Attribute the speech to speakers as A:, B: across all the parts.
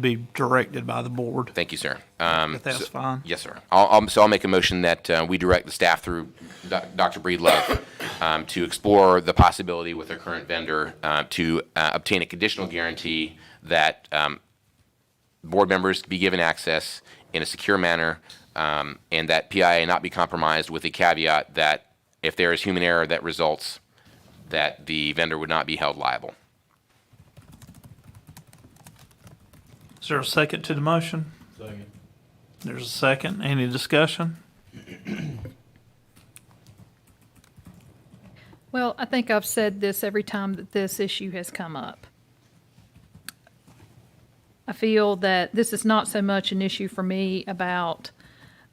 A: be directed by the board,
B: Thank you, sir. Um,
A: if that's
B: so-
A: fine.
B: Yes, sir. I'll, I'll, so I'll make a motion that uh, we direct the staff through Doc- Dr. Breedlove um, to explore the possibility with our current vendor uh, to uh, obtain a conditional guarantee that um, board members be given access in a secure manner um, and that PIA not be compromised with the caveat that if there is human error that results, that the vendor would not be held liable.
A: Is there a second to the motion? Second. There's a second. Any discussion?
C: Well, I think I've said this every time that this issue has come up. I feel that this is not so much an issue for me about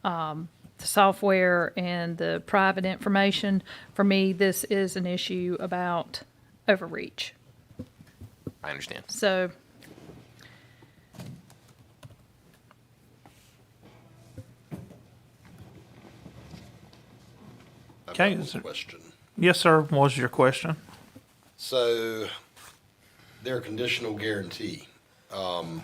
C: um, the software and the private information. For me, this is an issue about overreach.
B: I understand.
C: So
D: I've
A: Okay,
D: got one
A: is there-
D: Question.
A: Yes, sir, What was your question.
D: So their conditional guarantee, um,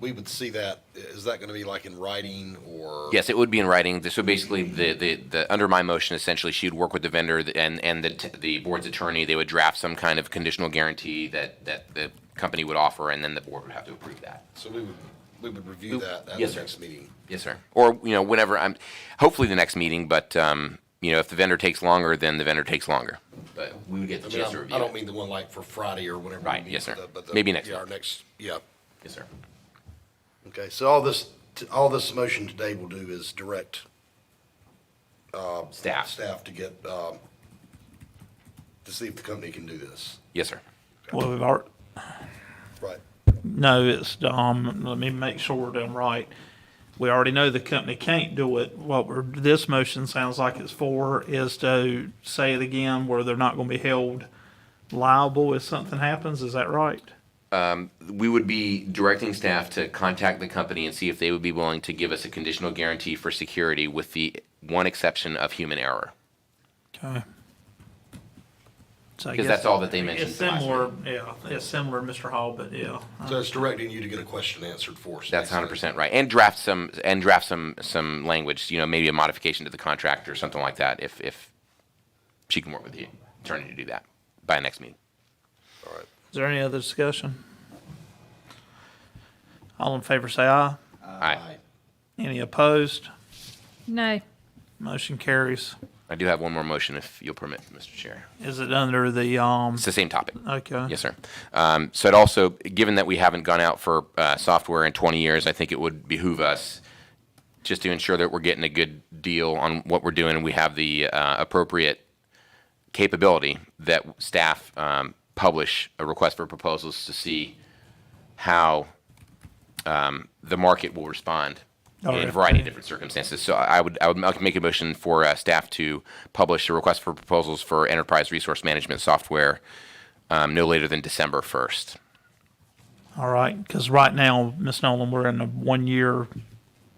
D: we would see that, is that going to be like in writing or?
B: Yes, it would be in writing. So basically, the, the, the, under my motion, essentially, she'd work with the vendor and, and the, t- the board's attorney. They would draft some kind of conditional guarantee that, that the company would offer, and then the board would have to approve that.
D: So we would, we would review that at
B: Yes,
D: the
B: sir.
D: next meeting.
B: Yes, sir. Or, you know, whenever I'm, hopefully the next meeting, but, um, you know, if the vendor takes longer, then the vendor takes longer. But we would get
D: I
B: the
D: mean,
B: chance to
D: I'm-
B: review
D: I don't
B: it.
D: mean the one like for Friday or whenever. we
B: Right,
D: meet,
B: yes, sir.
D: but the- but the-
B: Maybe next
D: Yeah, our
B: month.
D: next, yeah.
B: Yes, sir.
D: Okay, so all this, all this motion today will do is direct
B: Staff.
D: staff to get, um, to see if the company can do this.
B: Yes, sir.
A: Well, we've already,
D: Right.
A: no, it's, um, let me make sure that I'm right. We already know the company can't do it. What we're, this motion sounds like it's for is to say it again where they're not gonna be held liable if something happens. Is that right?
B: we would be directing staff to contact the company and see if they would be willing to give us a conditional guarantee for security with the one exception of human error.
A: Okay. So I
B: Because
A: guess-
B: that's all that they mentioned.
A: It's
B: to us.
A: similar, yeah, it's similar, Mr. Hall, but yeah.
D: So it's directing you to get a question answered for us.
B: That's hundred
D: basically.
B: percent right. And draft some, and draft some, some language, you know, maybe a modification to the contract or something like that if, if she can work with the attorney to do that by next meeting.
D: All right.
A: Is there any other discussion? All in favor say aye.
B: Aye.
A: Any opposed?
C: no,
A: Motion carries.
B: I do have one more motion if you'll permit, Mr. Chair.
A: Is it under the, um,
B: It's the same topic.
A: okay?
B: Yes, sir. Um, So it also, given that we haven't gone out for uh, software in 20 years, I think it would behoove us just to ensure that we're getting a good deal on what we're doing and we have the uh, appropriate capability that staff um, publish a request for proposals to see how um, the market will respond
A: All
B: in a
A: right.
B: variety of different circumstances. So I would, I would ma- make a motion for uh, staff to publish a request for proposals for enterprise resource management software um, no later than December 1st.
A: All right, because right now, Ms. Nolan, we're in a one-year,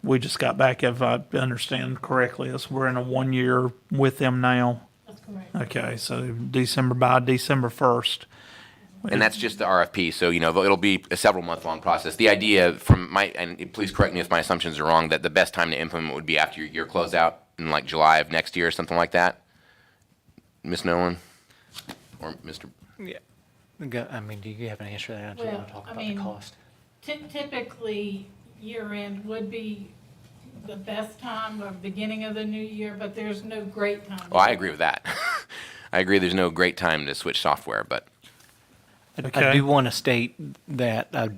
A: we just got back, if I understand correctly, is we're in a one-year with them now.
E: That's correct.
A: Okay, so December, by December first.
B: And that's just the RFP. So, you know, it'll be a several month long process. The idea from my, and please correct me if my assumptions are wrong, that the best time to implement would be after your year closeout in like July of next year or something like that. Ms. Nolan or Mr.
F: Go, I mean, do you have an answer to that? I just
E: Well,
F: want to talk
E: I
F: about
E: mean-
F: the cost.
E: Ty- Typically, year-end would be the best time or beginning of the new year, but there's no great time.
B: Oh, I agree with that. I agree there's no great time to switch software, but
A: Okay.
F: I do want to state that uh,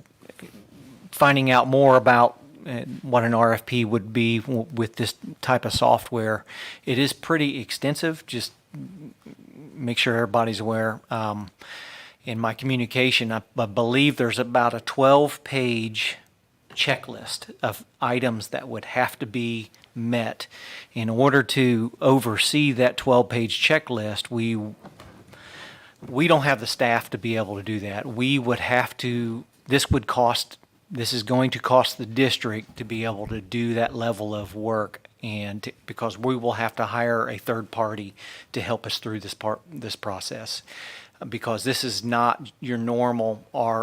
F: finding out more about uh, what an RFP would be w- with this type of software, it is pretty extensive. Just make sure everybody's aware. Um, in my communication, I, I believe there's about a 12 page checklist of items that would have to be met. In order to oversee that 12 page checklist, we we don't have the staff to be able to do that. We would have to, this would cost, this is going to cost the district to be able to do that level of work. And to- because we will have to hire a third party to help us through this part, this process. Because this is not your normal R